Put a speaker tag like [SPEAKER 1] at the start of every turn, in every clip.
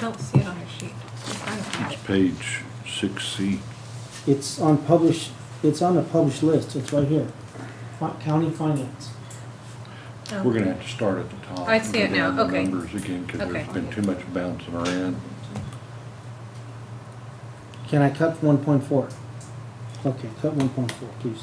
[SPEAKER 1] don't see it on your sheet. I don't have
[SPEAKER 2] It's
[SPEAKER 1] it.
[SPEAKER 2] page six C.
[SPEAKER 3] It's on published, it's on the published list, it's right here. Fi- County Finance.
[SPEAKER 1] Oh.
[SPEAKER 2] We're gonna have to start at the top.
[SPEAKER 1] I see
[SPEAKER 2] and
[SPEAKER 1] it
[SPEAKER 2] go down
[SPEAKER 1] now,
[SPEAKER 2] the
[SPEAKER 1] okay.
[SPEAKER 2] Numbers again, because
[SPEAKER 1] Okay.
[SPEAKER 2] there's been too much bouncing around.
[SPEAKER 3] Can I cut one point four? Okay, cut one point four, please.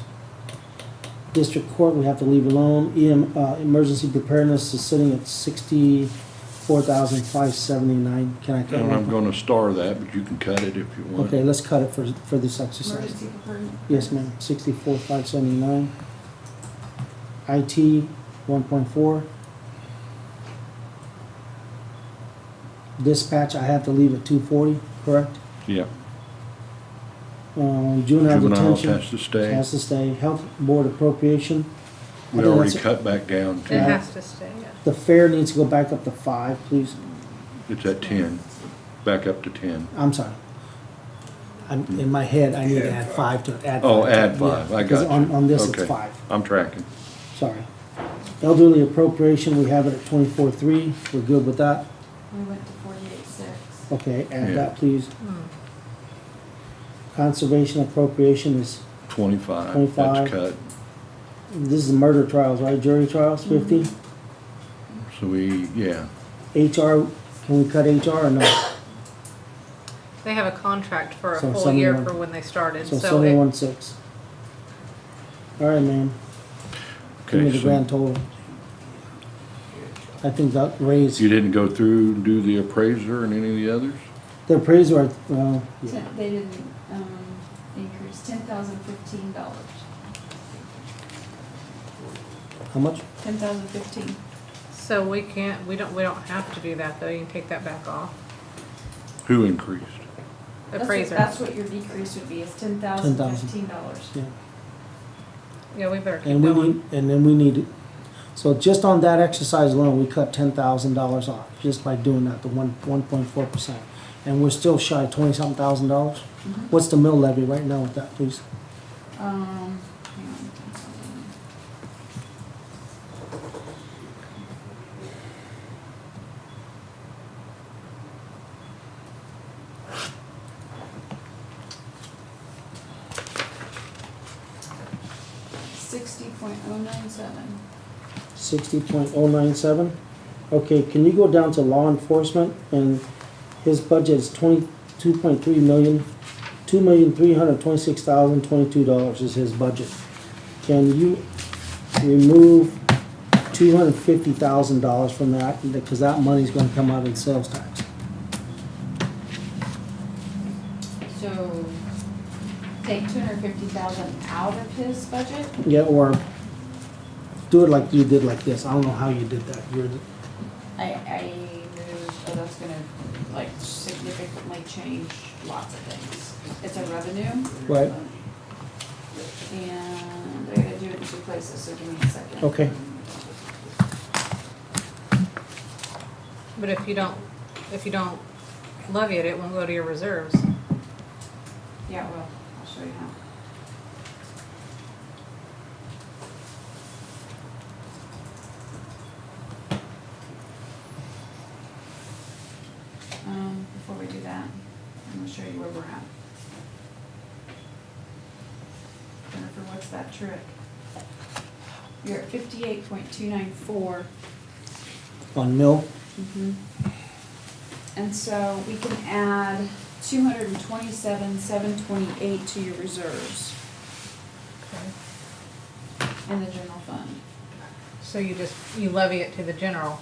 [SPEAKER 3] District Court, we have to leave alone. EM, uh, emergency preparedness is sitting at sixty-four thousand five seventy-nine. Can I cut
[SPEAKER 2] And I'm
[SPEAKER 3] one?
[SPEAKER 2] gonna star that, but you can cut it if you want.
[SPEAKER 3] Okay, let's cut it for, for this exercise.
[SPEAKER 4] Emergency preparedness.
[SPEAKER 3] Yes, ma'am, sixty-four, five seventy-nine. IT, one point four. Dispatch, I have to leave at two forty, correct?
[SPEAKER 2] Yeah.
[SPEAKER 3] Um, juvenile
[SPEAKER 2] Juvenile
[SPEAKER 3] detention
[SPEAKER 2] has to stay.
[SPEAKER 3] has to stay, health board appropriation. I
[SPEAKER 2] We
[SPEAKER 3] think
[SPEAKER 2] already
[SPEAKER 3] that's-
[SPEAKER 2] cut back down
[SPEAKER 1] It
[SPEAKER 2] to,
[SPEAKER 1] has to stay, yeah.
[SPEAKER 3] The fair needs to go back up to five, please,
[SPEAKER 2] it's at ten, back up to ten.
[SPEAKER 3] I'm sorry. I'm, in my head, I need to add five to, add.
[SPEAKER 2] Oh,
[SPEAKER 3] to-
[SPEAKER 2] add
[SPEAKER 3] yeah,
[SPEAKER 2] five, I
[SPEAKER 3] because
[SPEAKER 2] got you.
[SPEAKER 3] On, on this, it's
[SPEAKER 2] Okay.
[SPEAKER 3] five.
[SPEAKER 2] I'm tracking.
[SPEAKER 3] sorry. Elderly appropriation, we have it at twenty-four three, we're good with that.
[SPEAKER 4] We went to forty-eight six.
[SPEAKER 3] Okay,
[SPEAKER 2] Yeah.
[SPEAKER 3] add that, please. Conservation appropriation is,
[SPEAKER 2] Twenty-five, that's
[SPEAKER 3] 25.
[SPEAKER 2] cut.
[SPEAKER 3] this is murder trials, right, jury trials, fifty?
[SPEAKER 2] So we, yeah,
[SPEAKER 3] HR, can we cut HR or no?
[SPEAKER 1] They have a contract for a
[SPEAKER 3] So
[SPEAKER 1] full year
[SPEAKER 3] someone-
[SPEAKER 1] for when they started,
[SPEAKER 3] So
[SPEAKER 1] so it,
[SPEAKER 3] seventy-one six. All right, ma'am, give me
[SPEAKER 2] okay,
[SPEAKER 3] the
[SPEAKER 2] so
[SPEAKER 3] grand total. I think that raised,
[SPEAKER 2] you didn't go through, and do the appraiser and any of the others?
[SPEAKER 3] the appraiser, uh, are- well, yeah.
[SPEAKER 4] Ten, they didn't, um, increase, ten thousand fifteen dollars,
[SPEAKER 3] how much?
[SPEAKER 4] ten thousand fifteen.
[SPEAKER 1] so we can't, we don't, we don't have to do that though, you can take that back off.
[SPEAKER 2] Who increased?
[SPEAKER 1] Appraiser,
[SPEAKER 4] That's what your decrease would be, is ten thousand
[SPEAKER 3] 10,000.
[SPEAKER 4] fifteen dollars.
[SPEAKER 3] Yeah.
[SPEAKER 1] yeah, we better keep
[SPEAKER 3] And we
[SPEAKER 1] going.
[SPEAKER 3] need, and then we need, so just on that exercise alone, we cut ten thousand dollars off, just by doing that, the one, one point four percent. And we're still shy twenty-something thousand dollars?
[SPEAKER 4] Mm-hmm.
[SPEAKER 3] What's the mill levy right now with that, please?
[SPEAKER 4] Um, hang on. Sixty point oh nine seven.
[SPEAKER 3] Sixty point oh nine seven? Okay, can you go down to law enforcement, and his budget is twenty-two point three million, two million three hundred twenty-six thousand twenty-two dollars is his budget. Can you remove two hundred fifty thousand dollars from that, because that money's gonna come out in sales tax?
[SPEAKER 4] So take two hundred fifty thousand out of his budget?
[SPEAKER 3] Yeah, or do it like you did like this, I don't know how you did that, you're,
[SPEAKER 4] I, I moved, oh, that's gonna like significantly change lots of things. It's a revenue.
[SPEAKER 3] Right.
[SPEAKER 4] And I gotta do it in two places, so give me a second.
[SPEAKER 3] okay,
[SPEAKER 1] But if you don't, if you don't levy it, it won't go to your reserves.
[SPEAKER 4] Yeah, well, I'll show you how. Um, before we do that, I'm gonna show you where we're at. Jennifer, what's that trick? You're at fifty-eight point two nine four.
[SPEAKER 3] on mill,
[SPEAKER 4] Mhm. And so we can add two hundred and twenty-seven, seven twenty-eight to your reserves in the general fund.
[SPEAKER 1] So you just, you levy it to the general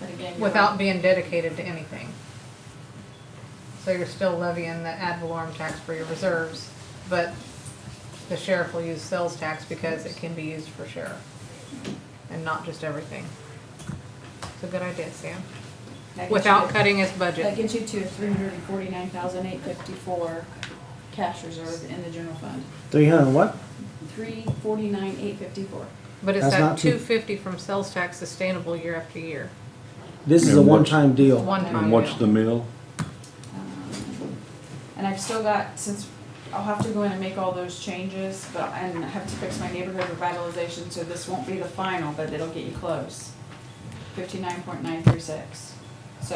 [SPEAKER 4] But again, you're
[SPEAKER 1] without
[SPEAKER 4] right.
[SPEAKER 1] being dedicated to anything. So you're still levying the ad valorem tax for your reserves, but the sheriff will use sales tax because it can be used for sheriff and not just everything. It's a good idea, Sam,
[SPEAKER 4] That gets you
[SPEAKER 1] without
[SPEAKER 4] to-
[SPEAKER 1] cutting his
[SPEAKER 4] That
[SPEAKER 1] budget.
[SPEAKER 4] gets you to three hundred and forty-nine thousand eight fifty-four cash reserve in the general fund.
[SPEAKER 3] three hundred what?
[SPEAKER 4] Three forty-nine, eight fifty-four.
[SPEAKER 1] But it's
[SPEAKER 3] That's
[SPEAKER 1] that
[SPEAKER 3] not too-
[SPEAKER 1] two fifty from sales tax sustainable year after year,
[SPEAKER 3] This is a
[SPEAKER 2] And what's-
[SPEAKER 3] one-time deal.
[SPEAKER 1] one time.
[SPEAKER 2] And what's
[SPEAKER 1] deal.
[SPEAKER 2] the mill?
[SPEAKER 4] Um, And I've still got, since, I'll have to go in and make all those changes, but, and I have to fix my neighborhood revitalization, so this won't be the final, but it'll get you close. Fifty-nine point nine three six.